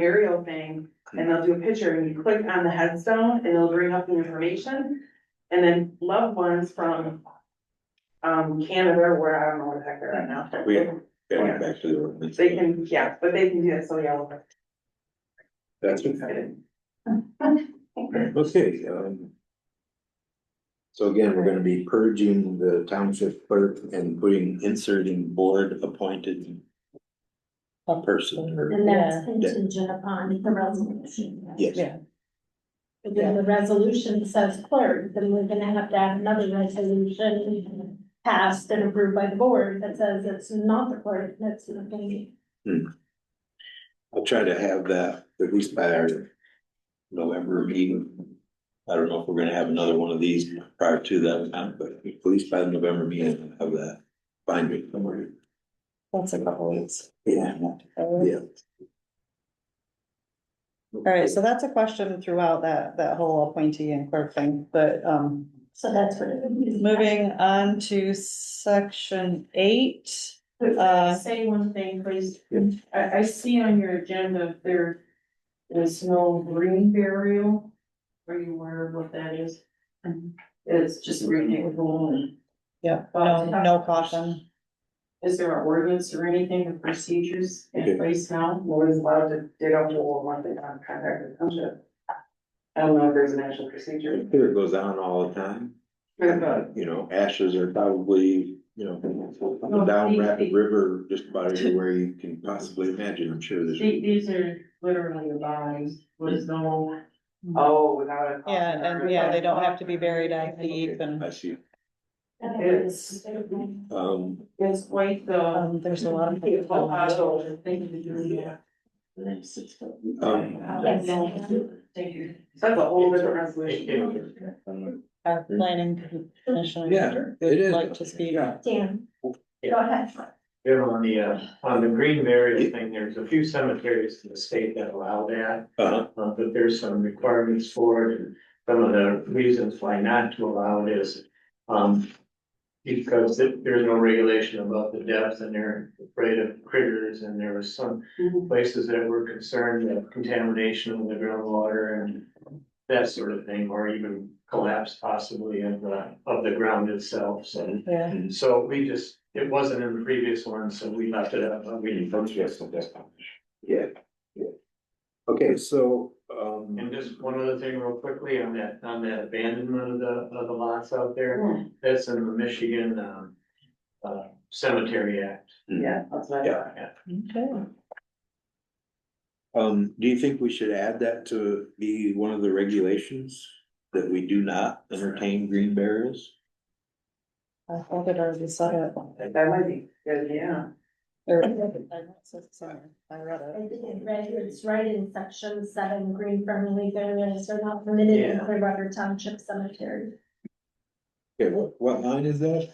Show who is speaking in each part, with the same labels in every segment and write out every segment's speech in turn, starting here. Speaker 1: burial thing, and they'll do a picture, and you click on the headstone, and it'll bring up the information. And then loved ones from um Canada, or where, I don't know where the heck they're at now.
Speaker 2: We- Yeah, back to the ordinance.
Speaker 1: They can, yeah, but they can do it, so yeah.
Speaker 2: That's okay. Okay, um. So again, we're gonna be purging the township clerk and putting, inserting board appointed. Person or,
Speaker 3: And that's
Speaker 2: Yeah.
Speaker 3: contingent upon the resolution.
Speaker 2: yes,
Speaker 4: Yeah.
Speaker 3: But then the resolution says clerk, then we're gonna have to have another resolution passed and approved by the board that says it's not the clerk, that's not gonna be.
Speaker 2: I'll try to have that at least by our November meeting. I don't know if we're gonna have another one of these prior to that, amount, but at least by the November meeting, I'll have that binding.
Speaker 4: That's a couple weeks.
Speaker 2: Yeah, yeah.
Speaker 4: All right, so that's a question throughout that, that whole appointee and clerk thing, but, um,
Speaker 3: So that's what it would be.
Speaker 4: moving on to section eight. Uh,
Speaker 5: Say one thing, please.
Speaker 2: Yeah.
Speaker 5: I, I see on your agenda, there is no green burial. Are you aware of what that is?
Speaker 1: Mm-hmm.
Speaker 5: It's just Um, renewable and
Speaker 4: yeah, no, um, no caution.
Speaker 5: is there an ordinance or anything, or procedures
Speaker 2: Okay.
Speaker 5: in place now?
Speaker 1: Lawyers allowed to dig up or one thing on contact with township. I don't know if there's an actual procedure.
Speaker 2: Here it goes on all the time. You know, ashes are probably, you know,
Speaker 4: Oh,
Speaker 2: down Rapid River, just about everywhere you can possibly imagine, I'm sure there's.
Speaker 5: The- These are literally the bodies, there's no,
Speaker 1: Oh, without a.
Speaker 4: Yeah, and yeah, they don't have to be buried at the eve and,
Speaker 2: I see,
Speaker 5: it's,
Speaker 2: um,
Speaker 5: it's quite the.
Speaker 4: um, there's a lot of.
Speaker 5: It's all out of thing to do, yeah.
Speaker 2: um.
Speaker 5: Thank you.
Speaker 1: So that's a whole different resolution.
Speaker 4: Our planning commission.
Speaker 2: Yeah, it is.
Speaker 4: Like to speak.
Speaker 2: Yeah.
Speaker 3: Dan, go ahead.
Speaker 6: Here on the, uh, on the green burial thing, there's a few cemeteries in the state that allow that,
Speaker 2: Uh-huh,
Speaker 6: uh, but there's some requirements for it. and Some of the reasons why not to allow it is, um, because it- there's no regulation about the depths and they're afraid of critters and there was some
Speaker 1: Mhm.
Speaker 6: places that were concerned of contamination of the groundwater and that sort of thing, or even collapse possibly of the, of the ground itself, so.
Speaker 4: Yeah,
Speaker 6: And so we just, it wasn't in the previous one, so we left it up, but we didn't vote yes on this one.
Speaker 2: yeah, yeah. Okay, so, um.
Speaker 6: And just one other thing real quickly on that, on that abandonment of the, of the lots
Speaker 1: Mm-hmm.
Speaker 6: out there, that's in the Michigan, um. Uh, Cemetery Act.
Speaker 1: Yeah, that's what I
Speaker 2: Yeah.
Speaker 1: thought.
Speaker 4: okay.
Speaker 2: Um, do you think we should add that to be one of the regulations? That we do not entertain green burials?
Speaker 4: I thought it already said it.
Speaker 1: That might be, good, yeah.
Speaker 4: Or- I read it.
Speaker 3: I think it read- It's right in section seven, green friendly areas are not permitted in
Speaker 6: Yeah.
Speaker 3: Clear River Township Cemetery.
Speaker 2: Okay, what, what line is that?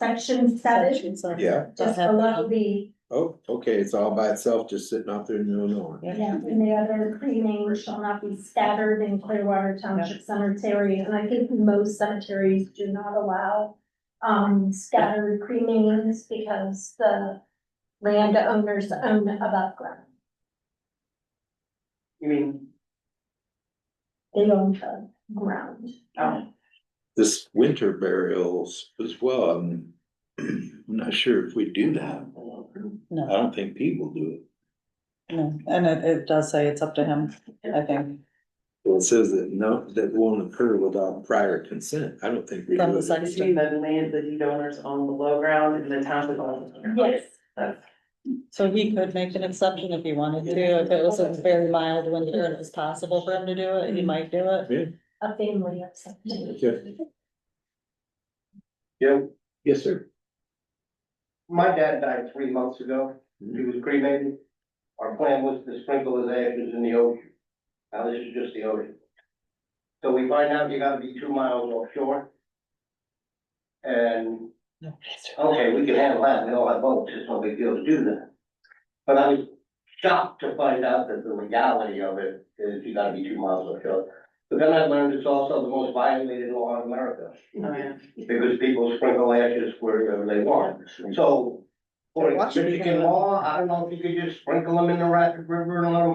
Speaker 3: Section seven,
Speaker 4: Section seven.
Speaker 2: Yeah.
Speaker 3: just below the,
Speaker 2: Oh, okay, it's all by itself, just sitting out there in the middle of nowhere.
Speaker 4: Yeah.
Speaker 3: yeah, and the other cremain shall not be scattered in Clearwater Township Cemetery. And I think most cemeteries do not allow um scattered cremains because the landowners own above ground.
Speaker 1: You mean,
Speaker 3: They own the ground.
Speaker 1: oh,
Speaker 2: This winter burials as well, I'm, I'm not sure if we do that.
Speaker 4: No.
Speaker 2: I don't think people do it.
Speaker 4: No, and it, it does say it's up to him, I think,
Speaker 2: Well, it says that no, that won't occur without prior consent. I don't think we
Speaker 4: from
Speaker 2: do
Speaker 4: the
Speaker 2: it.
Speaker 1: does you mean
Speaker 4: section.
Speaker 1: the land that the donors own below ground and the township owns? above ground?
Speaker 3: Yes.
Speaker 1: That's-
Speaker 4: So he could make an exception if he wanted to, if it was a very mild winter and it was possible for him to do it, he might do it.
Speaker 3: A family of cemeteries.
Speaker 2: Okay. Yeah, yes, sir.
Speaker 7: My dad died three months ago. He
Speaker 2: Mhm.
Speaker 7: was cremated. Our plan was to sprinkle his ashes in the ocean. Now, this is just the ocean. So we find out you gotta be two miles offshore. And, okay, we can handle that. We all have boats. It's no big deal to do that. But I was shocked to find out that the legality of it is you gotta be two miles offshore. But then I learned it's also the most violated law in America
Speaker 1: Oh, yeah.
Speaker 7: because people sprinkle ashes wherever they want. So Or
Speaker 4: Watch it.
Speaker 7: Michigan law, I don't know if you could just sprinkle them in the Rapid River and let them